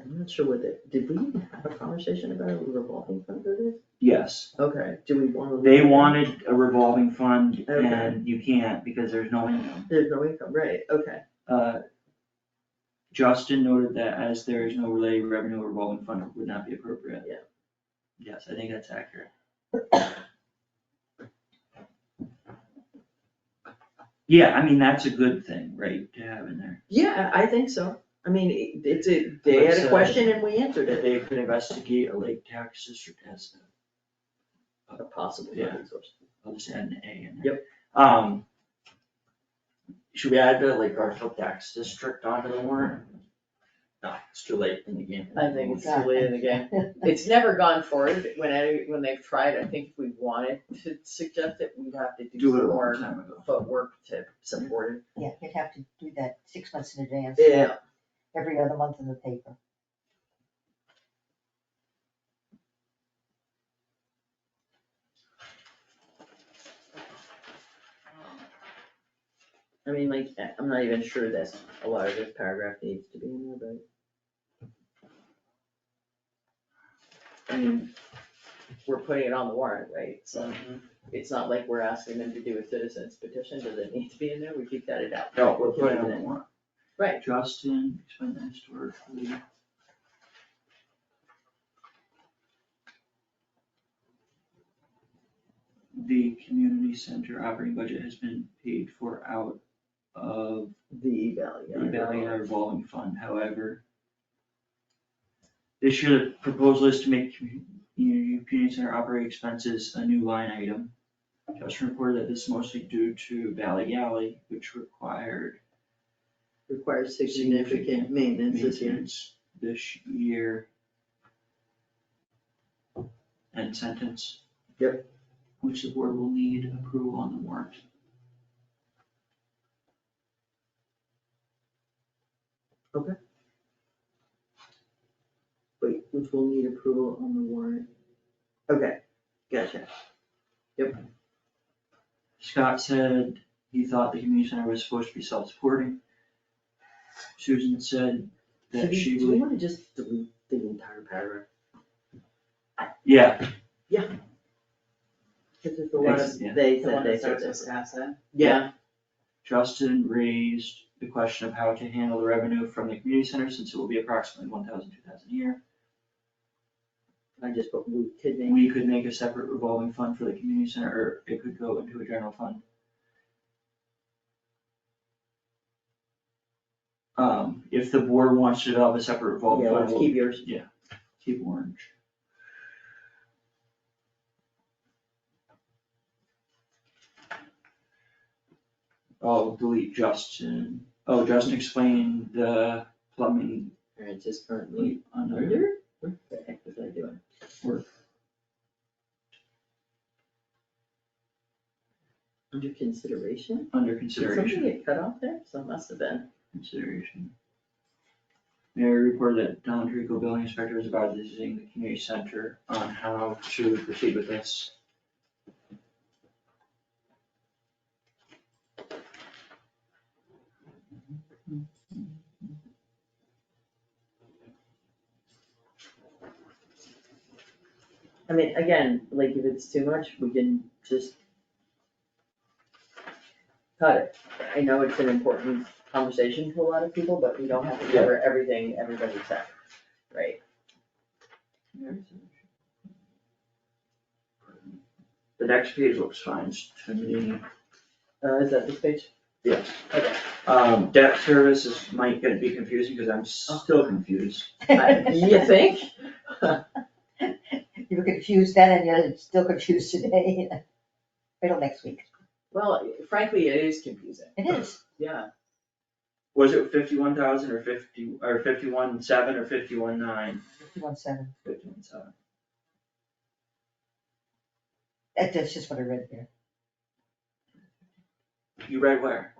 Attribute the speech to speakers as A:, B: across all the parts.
A: I'm not sure what the, did we even have a conversation about a revolving fund for this?
B: Yes,
A: Okay, do we wanna? leave
B: they
A: it?
B: wanted a revolving fund
A: Okay.
B: and you can't because there's no income.
A: There's no income, right, okay,
B: Uh, Justin noted that as there is no related revenue, a revolving fund would not be appropriate.
A: Yeah.
B: Yes, I think that's accurate. Yeah, I mean, that's a good thing, right, to have in there.
A: yeah, I think so, I mean, it- it's a, they
B: Let's,
A: had a
B: uh,
A: question and we answered
B: That
A: it,
B: they could investigate a lake tax district as a
A: a possible
B: Yeah.
A: funding source.
B: I'll just add an A in there. Yep. Um. Should we add the Lake Garfield tax district onto the warrant? No, it's too late in the game.
C: I think it's
A: It's
C: too late in the game. It's never gone forward. When I, when they've tried, I think if we wanted to suggest it, we'd have to do
B: Do it a
C: some
B: long
C: more
B: time ago.
C: footwork to support
D: Yeah, you'd have to do that six months in advance,
C: it.
D: every other month in the paper.
A: I mean, like, I- I'm not even sure this, a lot of this paragraph needs to be in there,
C: Yeah, I mean, we're putting it on the warrant, right? So
A: Mm-hmm.
C: it's not like we're asking them to do a citizen's petition. Does it need to be in there? We keep that it out.
B: No, we're putting it on the warrant.
C: Right.
B: Justin, explain that historically. The community center operating budget has been paid for out of
A: but the value.
B: the Valley Air revolving fund, however. This year, the proposal is to make community, community center operating expenses a new line item. Justin reported that this is mostly due to Valley Alley, which required
A: Requires significant maintenance this year.
B: maintenance this year. End sentence.
A: Yep.
B: Which the board will need approval on the warrant.
A: Wait, which will need approval on the warrant. Okay, gotcha.
B: Scott said he thought the community center was supposed to be self-supporting. Susan said
A: Should
B: that
A: we-
B: she
A: Do we
B: would,
A: wanna just delete the entire paragraph?
B: yeah,
A: Cause there's a lot of,
B: Ex- yeah.
A: they
C: The
A: said,
C: one
A: they
C: that
A: said
C: starts
A: this.
C: with asset.
A: Yeah,
B: Justin raised the question of how to handle the revenue from the community center since it will be approximately one thousand, two thousand a year.
A: I just put Luke Kidney.
B: We could make a separate revolving fund for the community center, or it could go into a general fund. Um, if the board wants to develop a separate revolving
A: Yeah,
B: fund,
A: let's
B: we'll
A: keep yours.
B: Keep orange. Oh, delete Justin. Oh, Justin explained the plumbing
A: Alright, just currently
B: leak under
A: under, what the heck was I doing?
B: work.
A: Under consideration?
B: Under
A: Did something
B: consideration,
A: get cut off there? So it must have been.
B: consideration. Mayor reported that Don Trico, building inspector, is about visiting the community center on how to proceed with this.
A: I mean, again, like if it's too much, we can just cut it. I know it's an important conversation to a lot of people, but we don't have to cover everything everybody said, right?
B: The next page looks fine to me.
A: Uh, is that this page?
B: Yes.
A: Okay.
B: Um, debt service is, might gonna be confusing, cause I'm still confused.
C: Uh,
A: I- You think?
D: You were confused then and you're still confused today. Wait till next week.
C: Well, frankly, it is confusing.
D: It is.
C: Yeah,
B: Was it fifty-one thousand or fifty, or fifty-one seven or fifty-one nine?
D: Fifty-one seven.
B: Fifty-one seven.
D: That, that's just what I read there.
B: You read where?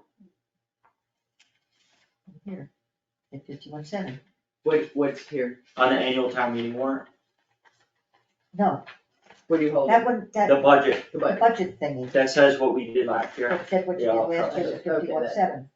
D: Here. At fifty-one seven.
C: what, what's here?
B: On the annual town meeting warrant?
D: No,
C: What do you hold?
D: that one,
B: The
D: that
B: budget,
C: The
D: the
C: budget.
D: budget thingy.
B: that says what we did last year.
D: That what you
B: Yeah,
D: did
B: I'll
D: last year
B: probably-
D: is
C: okay, that-
D: fifty-one seven.